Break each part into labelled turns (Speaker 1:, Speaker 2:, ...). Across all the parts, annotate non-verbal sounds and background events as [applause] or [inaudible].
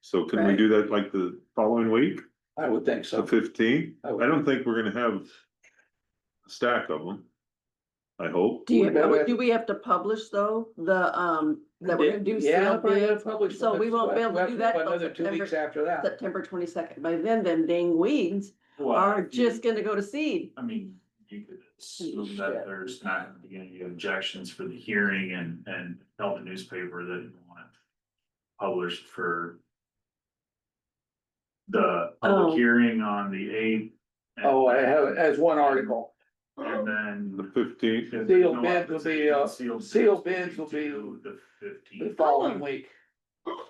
Speaker 1: So can we
Speaker 2: Right.
Speaker 1: do that like the following week,
Speaker 3: I would think
Speaker 1: the
Speaker 3: so.
Speaker 1: fifteenth?
Speaker 3: I would-
Speaker 1: I don't think we're gonna have a stack of them. I hope.
Speaker 2: Do you,
Speaker 3: What about
Speaker 2: have-
Speaker 3: it?
Speaker 2: do we have to publish though, the, um, that we're gonna do
Speaker 3: Yeah,
Speaker 2: sale
Speaker 3: I'll probably
Speaker 2: bids?
Speaker 3: publish
Speaker 2: So we won't be able to
Speaker 3: one-
Speaker 2: do that till
Speaker 3: Another two
Speaker 2: September-
Speaker 3: weeks after that.
Speaker 2: September twenty-second, by then, them dang weeds
Speaker 4: Well,
Speaker 2: are
Speaker 4: if you-
Speaker 2: just gonna go to seed.
Speaker 4: I mean, you could assume
Speaker 2: Shit.
Speaker 4: that there's not gonna be any objections for the hearing and, and tell the newspaper that you want it published for the
Speaker 2: Oh.
Speaker 4: public hearing on the eighth.
Speaker 3: Oh, I have, as one article,
Speaker 4: And
Speaker 1: The
Speaker 4: then.
Speaker 1: fifteenth,
Speaker 4: if there's
Speaker 3: Sealed
Speaker 4: no
Speaker 3: bids will be, uh,
Speaker 4: opposition,
Speaker 3: sealed bids will be-
Speaker 4: to
Speaker 2: Oh.
Speaker 4: The
Speaker 3: the
Speaker 4: fifteenth.
Speaker 3: following week.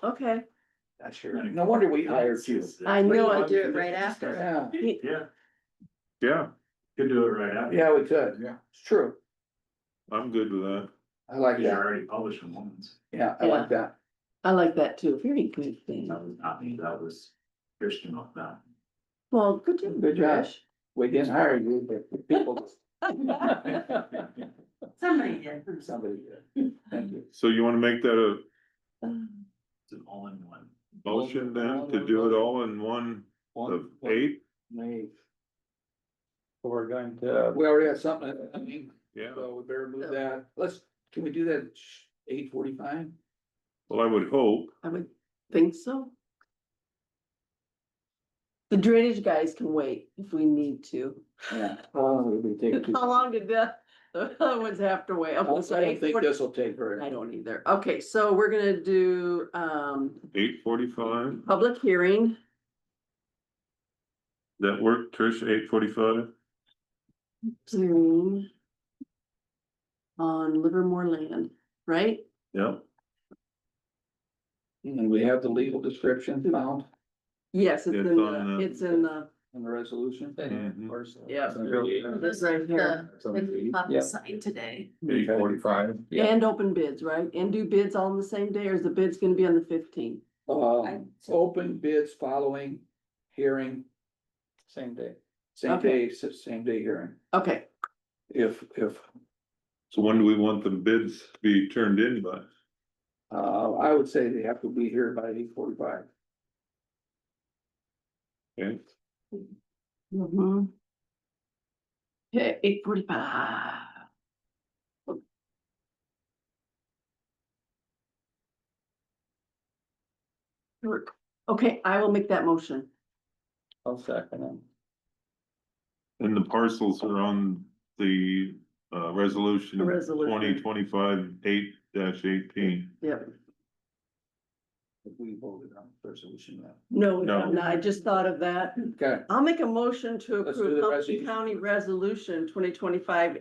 Speaker 2: Okay,
Speaker 3: That's your, no wonder we hired you.
Speaker 2: I know I
Speaker 3: do
Speaker 2: it right after.
Speaker 3: Yeah,
Speaker 4: Yeah,
Speaker 1: yeah,
Speaker 4: could do it right after.
Speaker 3: yeah, we could. Yeah. It's true.
Speaker 1: I'm good with that.
Speaker 3: I like
Speaker 4: Cause you're
Speaker 3: that.
Speaker 4: already publishing ones.
Speaker 3: Yeah, I like that.
Speaker 2: I like that too, very good thing.
Speaker 4: That was not me, that was Christian off that.
Speaker 2: Well, good job.
Speaker 3: Good job.
Speaker 2: Trish.
Speaker 3: We didn't hire you, but the
Speaker 2: [laughs]
Speaker 3: people.
Speaker 5: Somebody did.
Speaker 3: Somebody did. Thank you.
Speaker 1: So you wanna make that a
Speaker 2: Um,
Speaker 4: It's an all-in-one.
Speaker 1: motion then to do it all in one of eight?
Speaker 6: We're going to,
Speaker 3: We already have something, I mean,
Speaker 1: Yeah,
Speaker 3: so we better
Speaker 2: Oh.
Speaker 3: move that. Let's, can we do that eight forty-five?
Speaker 1: well, I would hope.
Speaker 2: I would think so. The drainage guys can wait if we need to.
Speaker 3: Yeah. How long would it take? to-
Speaker 2: How long did the, the other ones have to wait?
Speaker 3: I don't I don't think this will take very.
Speaker 2: I don't either. Okay, so we're gonna do, um,
Speaker 1: Eight forty-five,
Speaker 2: public hearing.
Speaker 1: that work, Trish, eight forty-five?
Speaker 2: Zoom. On Livermore land, right?
Speaker 1: Yeah,
Speaker 3: And we have the legal description found
Speaker 2: Yes, it's in,
Speaker 1: It's
Speaker 2: the-
Speaker 1: on the-
Speaker 2: it's in the,
Speaker 3: in the resolution.
Speaker 1: Mhm.
Speaker 2: yeah,
Speaker 5: This is the, the pop
Speaker 3: Yeah.
Speaker 5: sign today.
Speaker 1: eight
Speaker 6: forty-five.
Speaker 3: Yeah.
Speaker 2: and open bids, right? And do bids all on the same day, or is the bids gonna be on the fifteenth?
Speaker 3: Uh, open bids following hearing,
Speaker 6: Same day.
Speaker 3: same
Speaker 2: Okay.
Speaker 3: day, s- same day hearing,
Speaker 2: Okay,
Speaker 3: if, if,
Speaker 1: So when do we want the bids to be turned in by?
Speaker 3: uh, I would say they have to be here by eight forty-five.
Speaker 1: Okay,
Speaker 2: Mm-hmm. Okay, eight forty-five. Work. Okay, I will make that motion.
Speaker 6: I'll second it.
Speaker 1: and the parcels are on the uh resolution
Speaker 2: The resolution.
Speaker 1: twenty twenty-five eight dash eighteen.
Speaker 2: Yep.
Speaker 3: If we voted on the resolution now.
Speaker 2: No,
Speaker 1: No.
Speaker 2: no, I just thought of that.
Speaker 3: Okay,
Speaker 2: I'll make a motion to
Speaker 3: Let's
Speaker 2: approve
Speaker 3: do the
Speaker 2: Humboldt
Speaker 3: resolution.
Speaker 2: County Resolution twenty twenty-five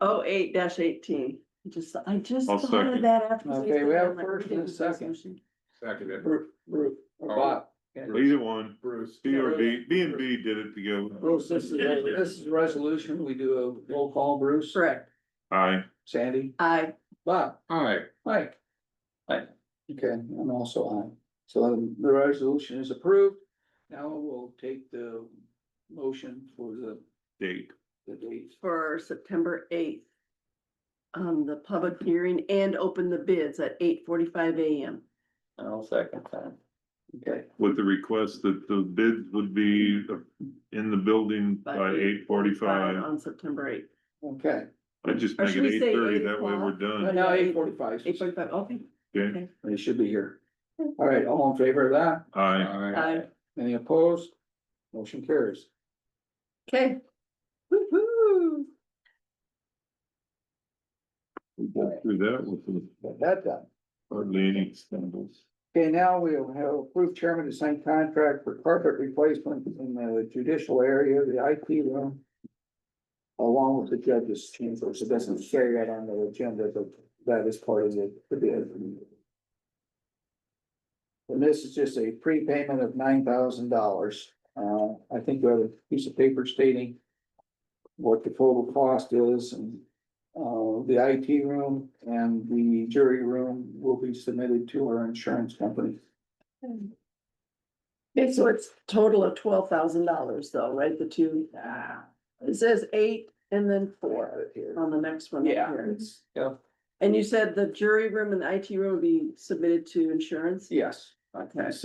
Speaker 2: oh eight dash eighteen. Just, I just
Speaker 1: I'll
Speaker 2: thought of
Speaker 1: second.
Speaker 2: that after. you
Speaker 3: Okay,
Speaker 2: said
Speaker 3: we
Speaker 2: that.
Speaker 3: have
Speaker 2: I'm like,
Speaker 3: first
Speaker 2: we
Speaker 3: and
Speaker 2: did
Speaker 3: a
Speaker 2: the
Speaker 3: second.
Speaker 2: resolution. Uh,
Speaker 6: Seconded.
Speaker 3: Bruce, Bruce, or Bob.
Speaker 1: Either one,
Speaker 3: Bruce.
Speaker 1: B or B, B and B did it together.
Speaker 3: Bruce, this is, this is a resolution, we do a roll call, Bruce.
Speaker 2: Correct.
Speaker 1: Aye,
Speaker 3: Sandy,
Speaker 2: I,
Speaker 3: Bob.
Speaker 6: Aye.
Speaker 3: Mike.
Speaker 6: Aye.
Speaker 3: Okay, I'm also on. So the resolution is approved. Now we'll take the motion for the,
Speaker 1: date,
Speaker 3: the date.
Speaker 2: for September eighth. Um, the public hearing and open the bids at eight forty-five AM.
Speaker 6: I'll second that.
Speaker 3: Okay,
Speaker 1: with the request that the bids would be in the building by eight forty-five.
Speaker 2: On September eighth.
Speaker 3: okay.
Speaker 1: I just
Speaker 2: Or
Speaker 1: make
Speaker 2: should
Speaker 1: it
Speaker 2: we
Speaker 1: eight
Speaker 2: say
Speaker 1: thirty,
Speaker 2: 8
Speaker 1: that way we're
Speaker 2: o'clock?
Speaker 1: done.
Speaker 3: Right now, eight forty-five,
Speaker 2: Eight forty-five, okay.
Speaker 1: Okay,
Speaker 3: they should be here. All right, all in favor of that?
Speaker 1: aye,
Speaker 2: Aye.
Speaker 3: Any opposed? Motion carries.
Speaker 2: Okay. Woo-hoo.
Speaker 1: we go through that with
Speaker 3: Got that done.
Speaker 1: hardly any stumbles.
Speaker 3: Okay, now we'll have approved chairman to sign contract for carpet replacement in the judicial area, the IT room. Along with the judge's chambers. It doesn't say that on the agenda, but that is part of the the bid. And this is just a prepayment of nine thousand dollars. Uh, I think you have a piece of paper stating. What the total cost is and uh, the IT room and the jury room will be submitted to our insurance company.
Speaker 2: Okay, so it's total of twelve thousand dollars though, right? The two,
Speaker 3: Ah,
Speaker 2: it says eight and then
Speaker 3: four
Speaker 2: four
Speaker 3: out of here.
Speaker 2: on the next one. up
Speaker 3: Yeah,
Speaker 2: here.
Speaker 3: it's, yeah,
Speaker 2: And you said the jury room and the IT room would be submitted to insurance?
Speaker 3: yes.
Speaker 2: Okay.